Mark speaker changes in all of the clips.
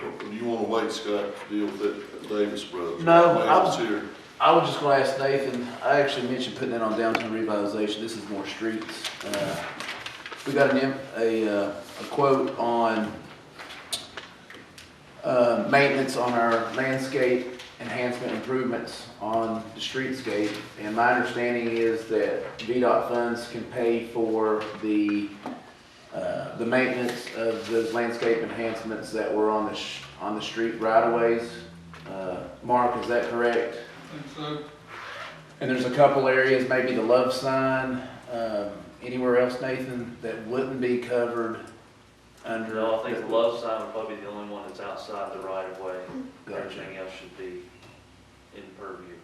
Speaker 1: Well, You wanna wait, Scott, to deal with that Davis brothers?
Speaker 2: No, I
Speaker 1: Davis
Speaker 2: was-
Speaker 1: here.
Speaker 2: I was just gonna ask Nathan, I actually mentioned putting that on downtown revitalization, this is more streets. Uh, We got an, em- a, uh, a quote on, uh, maintenance on our landscape enhancement improvements on the streetscape. And my understanding is that VDOT funds can pay for the, uh, the maintenance of those landscape enhancements that were on the, sh- on the street right of ways. Uh, Mark, is that correct?
Speaker 3: And so,
Speaker 2: And there's a couple areas, maybe the love sign, um, anywhere else, Nathan, that wouldn't be covered under.
Speaker 4: No, I think the love sign would probably be the only one that's outside the right of way.
Speaker 2: Gotcha.
Speaker 4: Everything else should be in purview.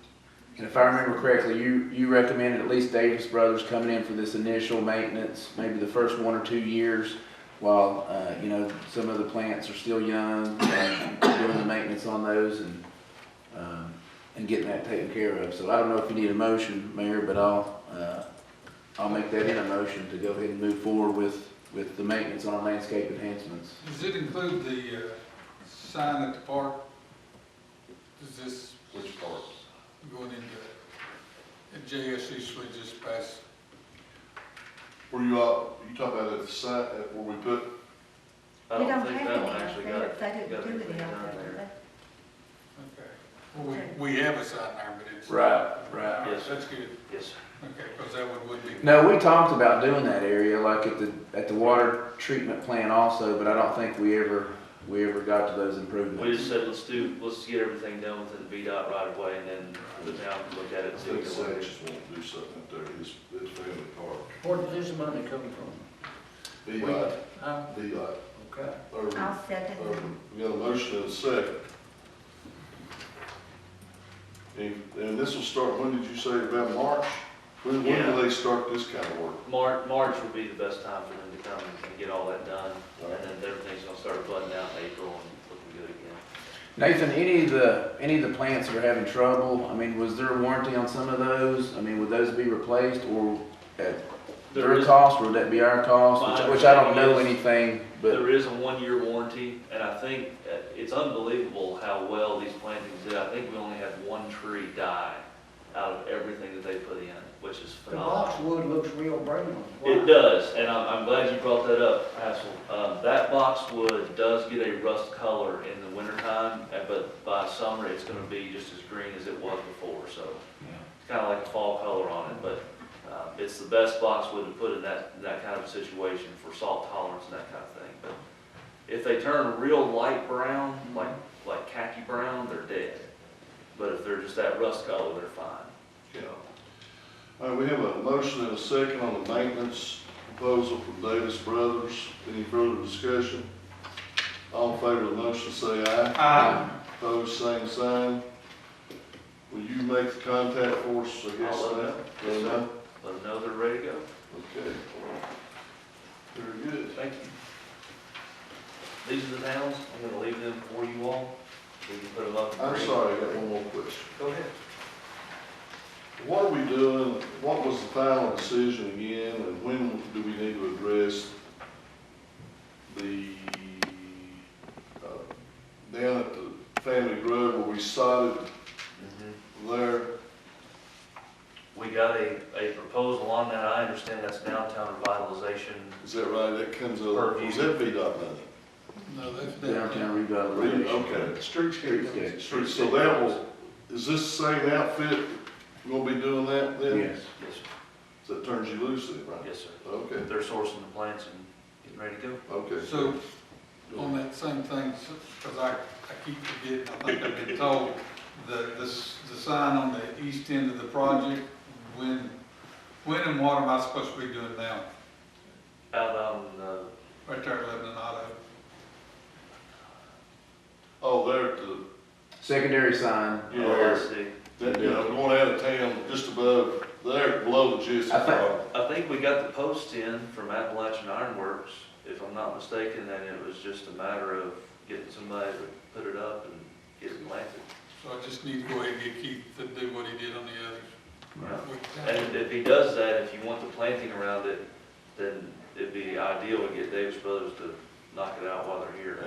Speaker 2: And if I remember correctly, you, you recommended at least Davis Brothers coming in for this initial maintenance, maybe the first one or two years, while, uh, you know, some of the plants are still young, and doing the maintenance on those and, um, and getting that taken care of. So I don't know if you need a motion, Mayor, but I'll, uh, I'll make that in a motion to go ahead and move forward with, with the maintenance on our landscape enhancements.
Speaker 3: does it include the, uh, sign at the park? Does this? Which park? Going into, at JSC, so we just passed,
Speaker 1: Were you, uh, you talking about at the site, at where we put,
Speaker 4: I
Speaker 5: We
Speaker 4: don't think
Speaker 5: have
Speaker 4: that one
Speaker 5: any
Speaker 4: actually
Speaker 5: out
Speaker 4: got,
Speaker 5: there. They
Speaker 4: got
Speaker 5: didn't do
Speaker 4: anything
Speaker 5: any
Speaker 4: down
Speaker 5: out
Speaker 4: there.
Speaker 5: there.
Speaker 3: okay. Well, we, we have a sign there, but it's.
Speaker 2: Right,
Speaker 3: All right,
Speaker 4: Yes.
Speaker 3: That's good,
Speaker 4: Yes, sir.
Speaker 3: okay, because that one would be.
Speaker 2: No, we talked about doing that area, like at the, at the water treatment plant also, but I don't think we ever, we ever got to those
Speaker 4: we
Speaker 2: improvements.
Speaker 4: just said, let's do, let's get everything done within the VDOT right of way and then the town can look at
Speaker 1: I
Speaker 4: it. see
Speaker 1: think
Speaker 4: what they want to do.
Speaker 1: Sanchez wanted to do something up there, his, his family park. uh,
Speaker 6: Where did this money come from?
Speaker 1: DOT,
Speaker 6: Huh?
Speaker 1: DOT,
Speaker 6: Okay.
Speaker 1: urban,
Speaker 5: I'll second that.
Speaker 1: urban. uh, We got a motion and a second. And, and this will start, when did you say, about March? When, when
Speaker 4: Yeah.
Speaker 1: do they start this kind of work?
Speaker 4: Mar- March would be the best time for them to come and get all that done. And then everything's gonna start flooding out in April and looking good again.
Speaker 2: Nathan, any of the, any of the plants that are having trouble, I mean, was there a warranty on some of those? I mean, would those be replaced or at
Speaker 4: There
Speaker 2: their
Speaker 4: is-
Speaker 2: cost, or would that be our cost?
Speaker 4: My
Speaker 2: Which- Which I don't know
Speaker 4: understanding
Speaker 2: anything, but,
Speaker 4: There is a one-year warranty, and I think uh, it's unbelievable how well these plantings did. I think we only had one tree die out of everything that they put in, which is
Speaker 6: The
Speaker 4: phenomenal.
Speaker 6: boxwood looks real brown.
Speaker 4: It does, and I'm, I'm glad you brought that up, Hassel. Um, that boxwood does get a rust color in the wintertime, uh, but by summer, it's gonna be just as green as it was before, so. It's kinda like a fall color on it, but, uh, it's the best boxwood to put in that, in that kind of situation for salt tolerance and that kind of thing. But if they turn real light brown, like, like khaki brown, they're dead. But if they're just that rust color, they're fine.
Speaker 1: Yeah. All right, we have a motion and a second on the maintenance proposal from Davis Brothers. Any further discussion? All in favor of the motion, say aye.
Speaker 3: Aye.
Speaker 1: Opposed, same sign. Will you make the contact for us, I guess,
Speaker 4: I'll let
Speaker 1: now?
Speaker 4: them- yes, sir. Let them know they're ready to go.
Speaker 1: Okay. Very good.
Speaker 4: Thank you. These are the towns, I'm gonna leave them for you all, we can put them up. in
Speaker 1: I'm
Speaker 4: green.
Speaker 1: sorry, I got one more question.
Speaker 4: Go ahead.
Speaker 1: What are we doing, what was the final decision again, and when do we need to address the, uh, down at the family grove where we sodded there?
Speaker 4: Mm-hmm. We got a, a proposal on that, I understand that's downtown revitalization,
Speaker 1: Is that right? That comes out,
Speaker 4: Purview.
Speaker 1: is that VDOT money?
Speaker 3: No, that's.
Speaker 2: downtown
Speaker 1: Really?
Speaker 2: revitalization.
Speaker 1: Okay.
Speaker 2: Streetscape.
Speaker 1: Street- So that was, is this the same outfit gonna be doing that then?
Speaker 2: Yes.
Speaker 4: yes, sir.
Speaker 1: So that turns you loose then, right?
Speaker 4: yes, sir.
Speaker 1: Okay,
Speaker 4: They're sourcing the plants and getting ready to go.
Speaker 1: okay.
Speaker 3: So, on that same thing, because I, I keep forgetting, I think I've been told, the, the, s- the sign on the east end of the project, when, when and what am I supposed to be doing now?
Speaker 4: Out on, uh,
Speaker 3: Right there at Lebanon Auto.
Speaker 1: Oh, there at the,
Speaker 2: Secondary sign,
Speaker 1: Yeah.
Speaker 4: LSD.
Speaker 1: That, you know, going out of town, just above, there, below the Jesse
Speaker 2: I think-
Speaker 1: Park.
Speaker 4: I think we got the post in from Appalachian Ironworks, if I'm not mistaken, and it was just a matter of getting somebody to put it up and get it planted.
Speaker 3: So I just need to go ahead and get Keith to do what he did on the
Speaker 4: Yeah.
Speaker 3: others.
Speaker 4: And if he does that, if you want the planting around it, then it'd be ideal to get Davis Brothers to knock it out while they're here.